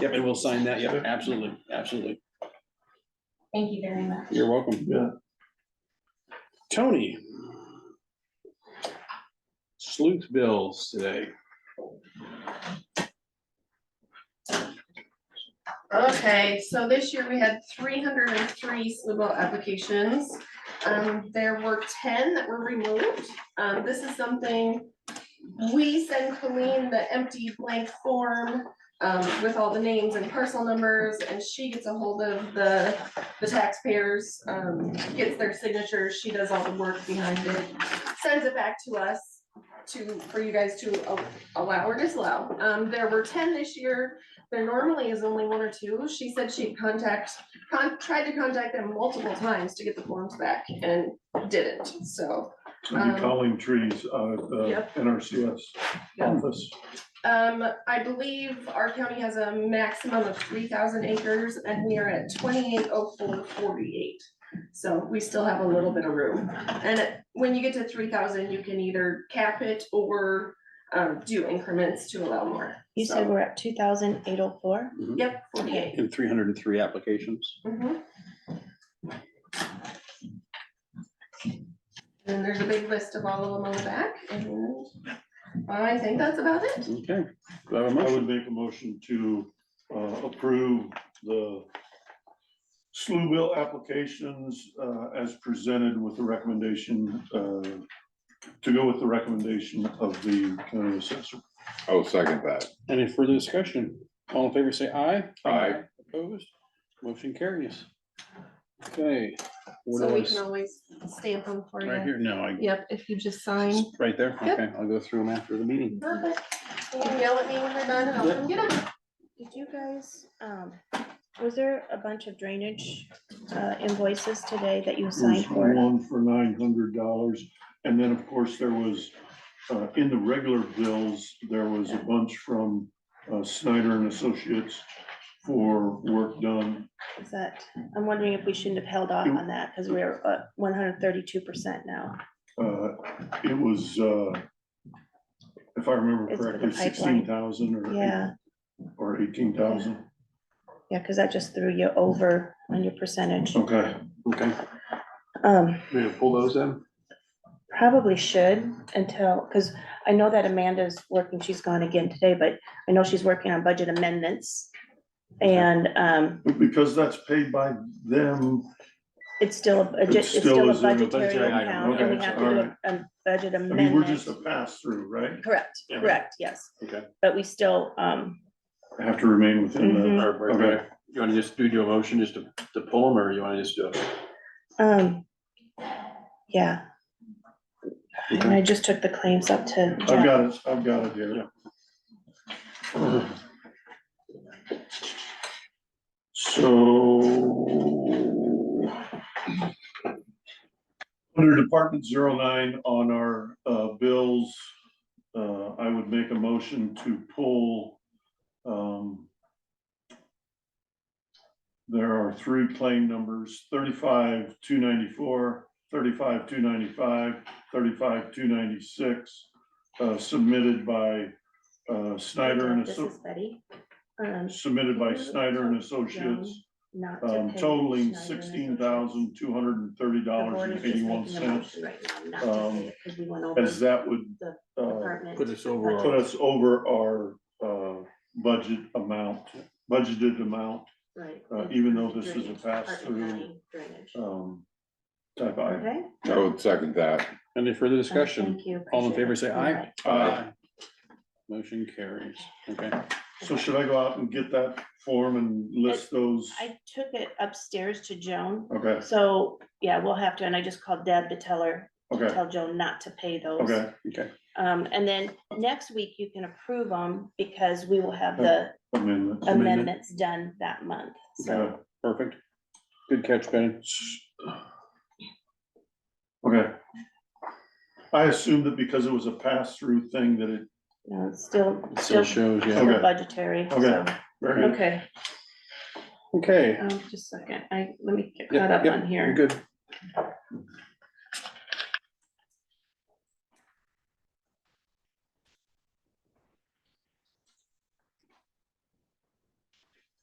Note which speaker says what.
Speaker 1: Yep, and we'll sign that, yeah, absolutely, absolutely.
Speaker 2: Thank you very much.
Speaker 1: You're welcome.
Speaker 3: Yeah.
Speaker 1: Tony. Sleuth bills today.
Speaker 4: Okay, so this year we had three hundred and three SLUBO applications. Um, there were ten that were removed. Um, this is something we send Colleen the empty blank form um, with all the names and parcel numbers, and she gets a hold of the, the taxpayers, um, gets their signatures, she does all the work behind it, sends it back to us to, for you guys to a- allow or disallow. Um, there were ten this year, there normally is only one or two. She said she contact, con- tried to contact them multiple times to get the forms back and didn't, so.
Speaker 3: We'll
Speaker 4: Um,
Speaker 3: be calling trees uh, out of the
Speaker 4: Yep.
Speaker 3: NRCS
Speaker 4: Yeah.
Speaker 3: office.
Speaker 4: Um, I believe our county has a maximum of three thousand acres and we are at twenty-eight oh four forty-eight. So we still have a little bit of room. And when you get to three thousand, you can either cap it or um, do increments to allow more.
Speaker 5: You said we're at two thousand eight oh four?
Speaker 4: Yep, forty-eight.
Speaker 1: In three hundred and three applications.
Speaker 4: Mhm. And there's a big list of all of them on the back, and I think that's about it.
Speaker 1: Okay. Do I have a
Speaker 3: I
Speaker 1: motion?
Speaker 3: would make a motion to uh, approve the SLU bill applications uh, as presented with the recommendation, uh, to go with the recommendation of the county assessor.
Speaker 6: Oh, second that.
Speaker 1: Any further discussion? All in favor, say aye.
Speaker 6: Aye.
Speaker 1: Opposed? Motion carries. Okay. what
Speaker 4: So we
Speaker 1: else?
Speaker 4: can always stamp them for
Speaker 1: Right
Speaker 4: you.
Speaker 1: here, no, I,
Speaker 4: Yep, if you just sign.
Speaker 1: right there,
Speaker 4: Yep.
Speaker 1: okay, I'll go through them after the meeting.
Speaker 4: Perfect. You can yell at me when they're done, and I'll come get them.
Speaker 5: Did you guys, um, was there a bunch of drainage uh invoices today that you signed
Speaker 3: There's
Speaker 5: for?
Speaker 3: one for nine hundred dollars, and then, of course, there was, uh, in the regular bills, there was a bunch from uh, Snyder and Associates for work done.
Speaker 5: Is that, I'm wondering if we shouldn't have held
Speaker 3: Mm.
Speaker 5: off on that, because we're uh one hundred thirty-two percent now.
Speaker 3: Uh, It was, uh, if I remember
Speaker 5: It's for the
Speaker 3: correctly,
Speaker 5: pipeline.
Speaker 3: sixteen thousand or
Speaker 5: Yeah,
Speaker 3: eight- or eighteen thousand.
Speaker 5: yeah, because that just threw you over on your percentage.
Speaker 3: Okay,
Speaker 1: Okay,
Speaker 5: Um,
Speaker 1: may I pull those then?
Speaker 5: probably should until, because I know that Amanda's working, she's gone again today, but I know she's working on budget amendments. And um,
Speaker 3: because that's paid by them.
Speaker 5: It's still, a budget- it's
Speaker 3: still
Speaker 5: still a
Speaker 3: is in the
Speaker 5: budgetary
Speaker 3: budget item,
Speaker 5: account, and we
Speaker 3: okay,
Speaker 5: have to do a- a budget
Speaker 3: I mean, we're just
Speaker 5: amendment.
Speaker 3: a pass-through, right?
Speaker 5: Correct,
Speaker 3: Yeah.
Speaker 5: correct, yes.
Speaker 1: Okay.
Speaker 5: But we still, um,
Speaker 3: Have to remain within the,
Speaker 5: Mhm.
Speaker 1: Or- or-
Speaker 3: Okay.
Speaker 1: You wanna just do your motion just to, to pull them, or you wanna just do it?
Speaker 5: um, yeah. And
Speaker 1: Okay.
Speaker 5: I just took the claims up to
Speaker 3: I've
Speaker 5: Jeff.
Speaker 3: got it, I've got it here. So. Under Department 09 on our uh, bills, uh, I would make a motion to pull. um, There are three claim numbers, thirty-five, two ninety-four, thirty-five, two ninety-five, thirty-five, two ninety-six. uh, Submitted by uh, Snyder and
Speaker 5: This
Speaker 3: Asso-
Speaker 5: is Betty. Um,
Speaker 3: submitted by Snyder and Associates
Speaker 5: not to
Speaker 3: um,
Speaker 5: pay
Speaker 3: totaling
Speaker 5: Schneider and
Speaker 3: sixteen
Speaker 5: Associates.
Speaker 3: thousand, two hundred and thirty
Speaker 5: The
Speaker 3: dollars
Speaker 5: board is
Speaker 3: and
Speaker 5: just
Speaker 3: eighty-one
Speaker 5: making a
Speaker 3: cents.
Speaker 5: motion
Speaker 3: Um,
Speaker 5: right now not to pay it 'cause we went over
Speaker 3: As that would, uh,
Speaker 5: department.
Speaker 1: Put us over our-
Speaker 3: put us over our, uh, budget amount, budgeted amount,
Speaker 5: Right.
Speaker 3: uh, even though this is a
Speaker 5: Drainage,
Speaker 3: pass-through.
Speaker 5: Department of Drainage.
Speaker 3: um, type I.
Speaker 5: Okay.
Speaker 6: I would second that.
Speaker 1: Any further discussion?
Speaker 5: Thank you.
Speaker 1: All in
Speaker 5: Appreciate
Speaker 1: favor,
Speaker 5: it.
Speaker 1: say aye.
Speaker 3: Uh,
Speaker 1: Motion carries, okay.
Speaker 3: so should I go out and get that form and list those?
Speaker 5: I took it upstairs to Joan,
Speaker 3: Okay,
Speaker 5: so, yeah, we'll have to, and I just called Deb to tell her,
Speaker 3: okay,
Speaker 5: tell Joan not to pay those.
Speaker 3: okay,
Speaker 5: Um, and then next week you can approve them because we will have the
Speaker 3: amendment.
Speaker 1: Oh, Amendment.
Speaker 5: amendments done that month, so.
Speaker 3: Okay,
Speaker 1: Perfect. Good catch, Benny.
Speaker 3: okay. I assumed that because it was a pass-through thing that it,
Speaker 5: you know, it's Still,
Speaker 1: It Still
Speaker 5: still
Speaker 1: shows, yeah.
Speaker 3: Okay.
Speaker 5: still budgetary, so,
Speaker 3: Okay. very good.
Speaker 5: okay,
Speaker 1: Okay,
Speaker 5: um, just a second, I, let me get
Speaker 1: Yep,
Speaker 5: caught up
Speaker 1: yep,
Speaker 5: on
Speaker 1: you're
Speaker 5: here.
Speaker 1: good.